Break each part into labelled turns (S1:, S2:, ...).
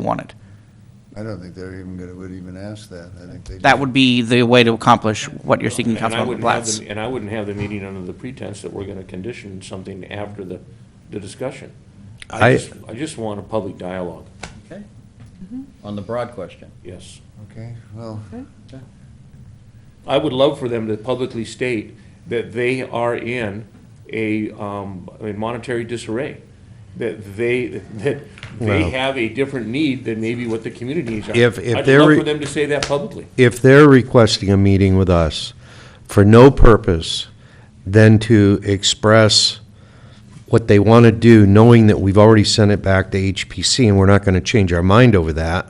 S1: wanted.
S2: I don't think they're even gonna, would even ask that. I think they.
S1: That would be the way to accomplish what you're seeking,
S3: And I
S1: Councilmember
S3: wouldn't have
S1: Blatz.
S3: the, and I wouldn't have the meeting under the pretense that we're gonna condition something after the, the discussion.
S4: I-
S3: just- I just want a public dialogue,
S5: Okay. On the broad question.
S3: yes.
S2: Okay, well,
S3: I would love for them to publicly state that they are in a, um, in monetary disarray. That they, that they
S4: Well-
S3: have a different need than maybe what the community needs are.
S4: If- if
S3: I'd
S4: they're
S3: love
S4: re-
S3: for them to say that publicly.
S4: if they're requesting a meeting with us for no purpose than to express what they want to do, knowing that we've already sent it back to HPC and we're not going to change our mind over that,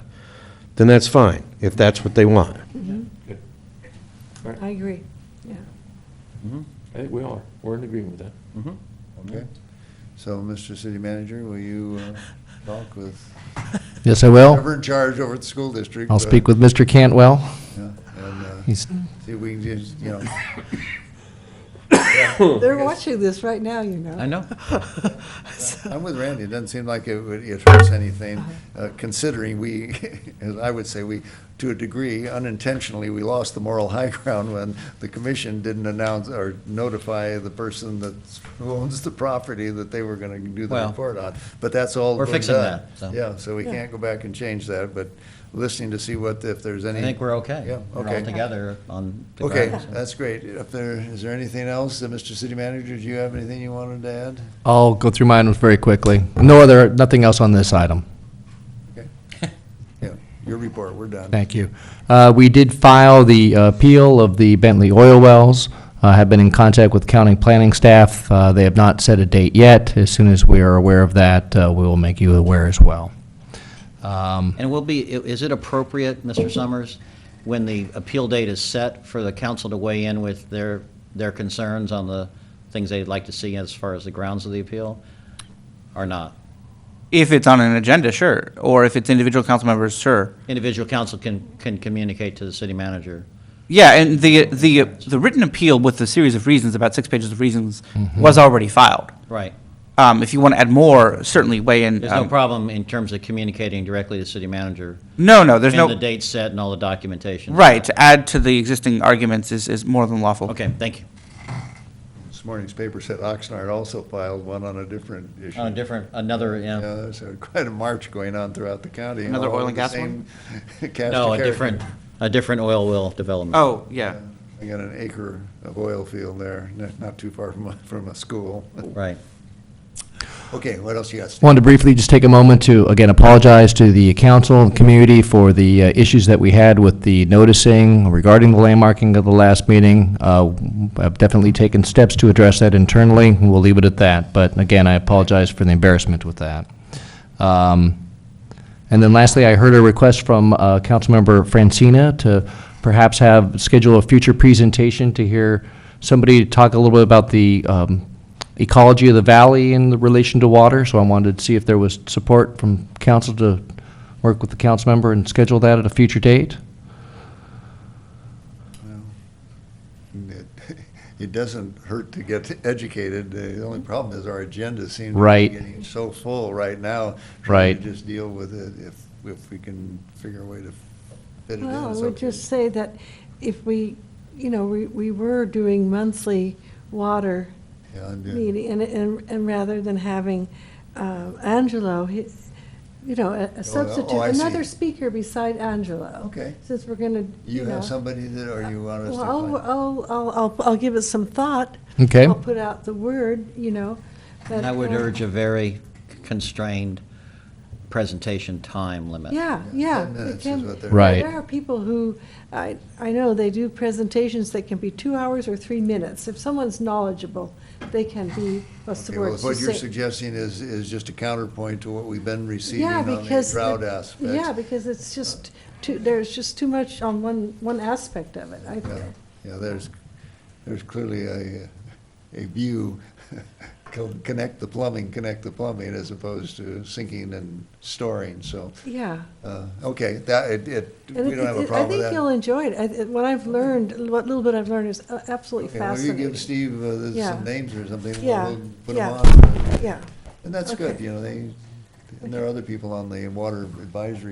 S4: then that's fine, if that's what they want.
S6: I agree, yeah.
S3: I think we are, we're in agreement with that.
S2: okay. So, Mr. City Manager, will you uh, talk with
S7: Yes, I will.
S2: whoever in charge over at the school district?
S7: Oh.
S2: uh,
S7: I'll speak with Mr. Cantwell.
S2: And uh,
S7: He's,
S2: see if we can just, you know, Hmm.
S6: They're watching this right now, you know.
S5: I know.
S2: I'm with Randy, it doesn't seem like it would, it hurts anything, uh, considering we, as I would say, we, to a degree, unintentionally, we lost the moral high ground when the commission didn't announce or notify the person that's, who owns the property that they were gonna do the
S5: Well,
S2: report on, but that's all.
S5: we're
S2: been
S5: fixing
S2: done.
S5: that, so.
S2: Yeah, so we
S6: Yeah.
S2: can't go back and change that, but listening to see what, if there's any.
S5: I think we're okay.
S2: Yeah,
S5: We're all
S2: okay.
S5: together on the
S2: Okay,
S5: grounds.
S2: that's great. If there, is there anything else, uh, Mr. City Manager, do you have anything you wanted to add?
S7: I'll go through mine very quickly. No other, nothing else on this item.
S2: Yeah, your report, we're done.
S7: Thank you. Uh, We did file the uh, appeal of the Bentley oil wells. I have been in contact with county planning staff. Uh, They have not set a date yet. As soon as we are aware of that, uh, we will make you aware as well. Um,
S5: And will be, i- is it appropriate, Mr. Summers, when the appeal date is set, for the council to weigh in with their, their concerns on the things they'd like to see as far as the grounds of the appeal, or not?
S1: If it's on an agenda, sure, or if it's individual council members, sure.
S5: Individual council can, can communicate to the city manager.
S1: Yeah, and the, the, the written appeal with the series of reasons, about six pages of reasons,
S5: Mm-hmm.
S1: was already filed.
S5: Right.
S1: Um, if you want to add more, certainly weigh in.
S5: There's no
S1: um,
S5: problem in terms of communicating directly to the city manager.
S1: No, no, there's
S5: And the
S1: no,
S5: date set and all the documentation.
S1: right, to add to the existing arguments is, is more than lawful.
S5: Okay, thank you.
S2: This morning's paper said Oxnard also filed one on a different issue.
S5: On a different, another,
S2: Yeah,
S5: yeah,
S2: there's a- quite a march going on throughout the county.
S1: Another
S2: all
S1: oil
S2: over
S1: and
S2: the
S1: gas
S2: same cast of
S5: no, a
S2: character.
S5: different, a different oil well development.
S1: Oh, yeah.
S2: I got an acre of oil field there, not- not too far from, a- from a school.
S5: Right.
S2: Okay, what else you got? Steve?
S7: Wanted to briefly just take a moment to, again, apologize to the council and community for the uh, issues that we had with the noticing regarding the landmarking of the last meeting. Uh, I've definitely taken steps to address that internally, and we'll leave it at that. But again, I apologize for the embarrassment with that. Um, And then lastly, I heard a request from uh, Councilmember Francina to perhaps have, schedule a future presentation to hear somebody talk a little bit about the um, ecology of the valley in the relation to water. So I wanted to see if there was support from council to work with the council member and schedule that at a future date.
S2: It- It doesn't hurt to get educated. The only problem is our agenda seems to be
S7: Right.
S2: getting so full right now. Trying
S7: Right.
S2: to just deal with it if, if we can figure a way to fit it in.
S6: Well, I
S2: It's
S6: would
S2: up to you.
S6: just say that if we, you know, we, we were doing monthly water
S2: Yeah, uh, I'm doing-
S6: meeting, and, and, and rather than having uh, Angelo, he- you know, a- a substitute,
S2: Oh, I see.
S6: another speaker beside Angelo.
S2: Okay.
S6: Since we're gonna, you
S2: You
S6: know.
S2: have somebody that, or you want us to?
S6: Well,
S2: find-
S6: I'll, I'll, I'll, I'll, I'll give it some thought.
S7: Okay.
S6: I'll put out the word, you know.
S5: And
S6: that,
S5: I would
S6: uh,
S5: urge a very constrained presentation time limit.
S6: Yeah,
S2: Yeah,
S6: yeah.
S2: ten
S6: it
S2: minutes
S6: can-
S2: is what they're-
S7: Right.
S6: There are people who, I, I know they do presentations that can be two hours or three minutes. If someone's knowledgeable, they can be, what's the
S2: Okay, well,
S6: word?
S2: What you're
S6: succinct.
S2: suggesting is, is just a counterpoint to what we've been receiving
S6: Yeah,
S2: on the
S6: because
S2: drought
S6: it-
S2: aspect.
S6: Yeah, because it's just too, there's just too much on one, one aspect of it, I
S2: Yeah,
S6: feel.
S2: yeah, there's, there's clearly a, a view, co- connect the plumbing, connect the plumbing, as opposed to sinking and storing, so,
S6: Yeah.
S2: uh, okay, that, it, it,
S6: And
S2: we
S6: it-
S2: don't have
S6: it-
S2: a problem with
S6: I think
S2: that.
S6: you'll enjoy it. I- it- What I've learned, what little bit I've learned is uh, absolutely
S2: Okay, well, you
S6: fascinating.
S2: give Steve uh,
S6: Yeah.
S2: some names or something,
S6: Yeah,
S2: we'll we'll put them
S6: yeah.
S2: on,
S6: Yeah,
S2: and that's good,
S6: Okay.
S2: you know, they, And there are other people on the water advisory